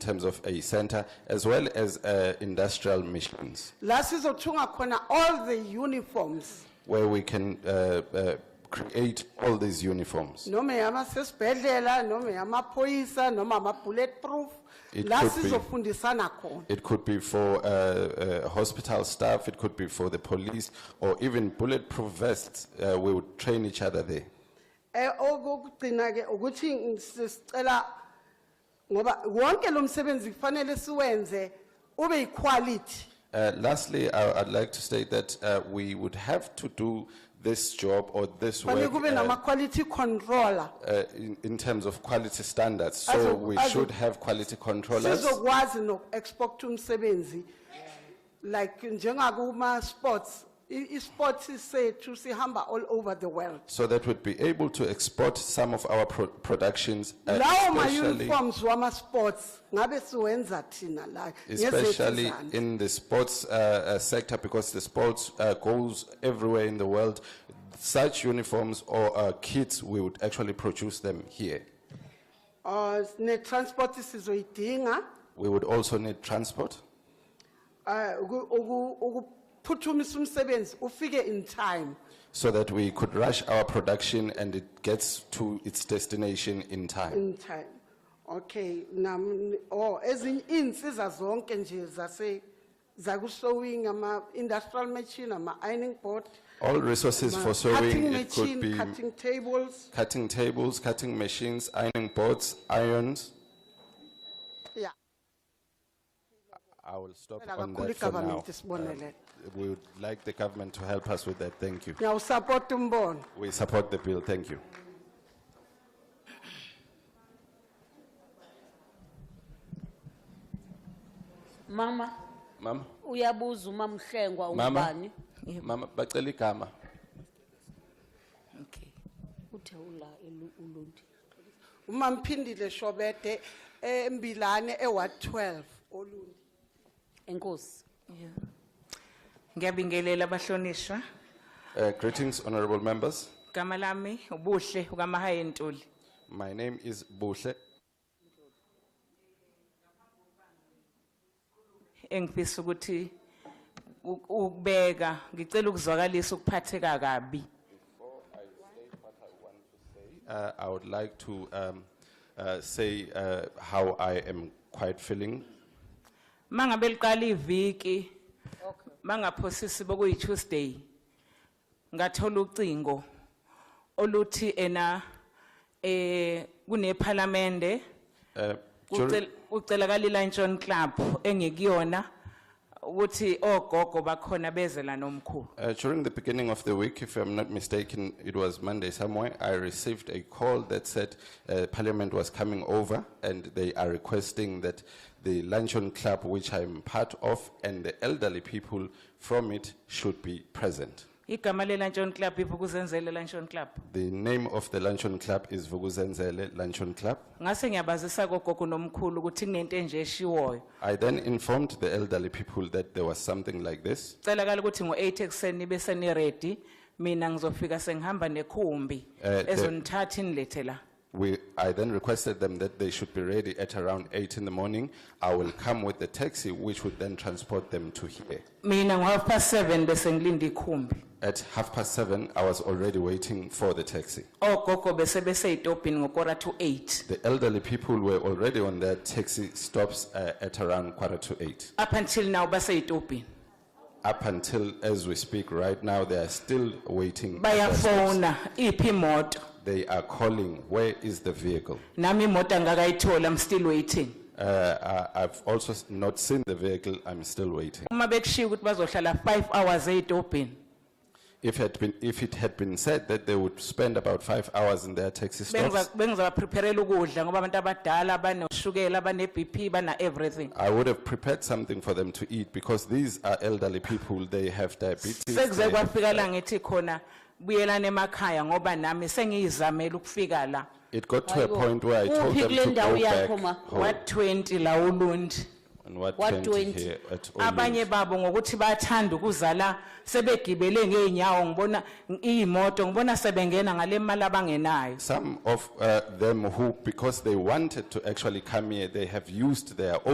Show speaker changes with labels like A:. A: terms of a center, as well as uh, industrial missions,
B: la sizothunga khona all the uniforms
A: where we can uh, uh, create all these uniforms.
B: noma yamasesibhedlela noma yamaphoyisa noma ama-bulletproof
A: It
B: la
A: could be.
B: sizofundisana khona
A: It could be for uh, uh, hospital staff, it could be for the police, or even bulletproof vests. Uh, we would train each other there.
B: um okokugcina-ke ukuthi ng- si- sicela ngoba wonke lo msebenzi kufanele siwenze ube yiquality
A: Uh, lastly, I, I'd like to state that uh, we would have to do this job or this
B: fanele
A: work
B: kube
A: uh,
B: nama-quality controller
A: uh, in, in terms of quality standards. So
B: Azo-
A: we
B: azo-
A: should have quality controllers.
B: sizokwazi noku-export umsebenzi like njengakuma-sports i- i-sports sethu sihamba all over the world
A: So that we'd be able to export some of our pro- productions, uh,
B: lawo
A: especially,
B: ma-uniforms wama-sports ngabe siwenza thina la
A: especially
B: ngezethu
A: in the sports uh, uh, sector because the sports uh, goes everywhere in the world. Such uniforms or uh, kits, we would actually produce them here.
B: um ne-transport sizoyidinga
A: We would also need transport
B: um ukuphuthumisa umsebenzi ufike in time
A: so that we could rush our production and it gets to its destination in time.
B: in time okay nam or ezinye iinsiza zonke nje zase zakusowing ama-industrial machine ama-ironing board
A: All resources for sewing,
B: cutting
A: it could
B: machine
A: be
B: cutting tables
A: cutting tables, cutting machines, ironing boards, irons.
B: yeah
A: I will stop on
B: kakhulu
A: that for now. Uh,
B: igovernment isibonelele
A: We would like the government to help us with that, thank you.
B: ngiyawusapota umbono
A: We support the bill, thank you.
C: Mama,
A: Mama,
C: uyabuza umamhlengwa
A: mama,
C: ubani?
A: mama, baceli kama.
C: Okay. Uthe ula ilu- ulundi.
B: uma mphindile shobede embilane eward 12 olundi
C: Enkosi.
D: Ngiyabingelela abahlonishwa.
A: Uh, Greetings, honorable members.
D: Igama lami ubuhle ukaMahaya Ntuli.
A: My name is Bushle.
D: Engifisa ukuthi u- ukubeka ngicela ukuzwakalisa ukuphatheka kabi
A: Uh, I would like to um, uh, say uh, how I am quite feeling.
D: mangabe liqala iviki mangaphosisi bokuyi Tuesday ngathola ucingo oluthi ena eh kuneparlamente
A: Uh, dur-
D: Ucel- ucelakala iLanchon Club engekuyona ukuthi ogogo bakhona beze la nomkhulu
A: Uh, During the beginning of the week, if I'm not mistaken, it was Monday somewhere, I received a call that said uh, Parliament was coming over and they are requesting that the Luncheon Club, which I'm part of, and the elderly people from it should be present.
D: igama leLanchon Club ibukuzenzele Lanchon Club
A: The name of the Luncheon Club is Vuguzenzele Luncheon Club.
D: ngase ngiyabazisa kogogo nomkhulu ukuthi kunento enje eshiwoyo
A: I then informed the elderly people that there was something like this.
D: celakala ukuthi ngo8 ekseni bese ni ready mina ngizofika sengihamba nekhumbi
A: Eh, the-
D: ezonithatha inilethe la
A: We, I then requested them that they should be ready at around 8 in the morning. I will come with the taxi, which would then transport them to here.
D: mina ngo half past 7 bese ngilinda ikhumbi
A: At half past seven, I was already waiting for the taxi.
D: ogogo bese bese itopini ngokora to 8
A: The elderly people were already on their taxi stops uh, at around quarter to eight.
D: up until now base itopini
A: Up until as we speak right now, they are still waiting. at their stops.
D: bayafona iphi imoto
A: They are calling, where is the vehicle?
D: nami imoto angakayithola i'm still waiting
A: Uh, I, I've also s- not seen the vehicle, I'm still waiting.
D: uma bekushiya ukuthi bazohlala 5 hours eitobhini
A: If it had been, if it had been said that they would spend about five hours in their taxi stops,
D: bengizabaprepherela ukudla ngoba abantu abadala banoshukela bane-bp bana-everything
A: I would have prepared something for them to eat because these are elderly people, they have diabetes.
D: sekuze
A: they have
D: kwafika la ngithi khona buyelani emakhaya ngoba nami sengiyizamele ukufika la
A: It got to a
C: Hayibo.
A: point where I told
C: Uphi
A: them
C: kule
A: to
C: ndawo
A: go back
C: yakho ma?
A: home.
D: wa-20 la ulundi
A: and what
C: What
A: twenty
C: 20?
A: here at all.
D: abanye babo ngokuthi bayathanda ukuzala sebegibele ngeenyawo ngibona iy'moto ngibona sebengena ngale mali abangenayo
A: Some of uh, them who, because they wanted to actually come here, they have used their own.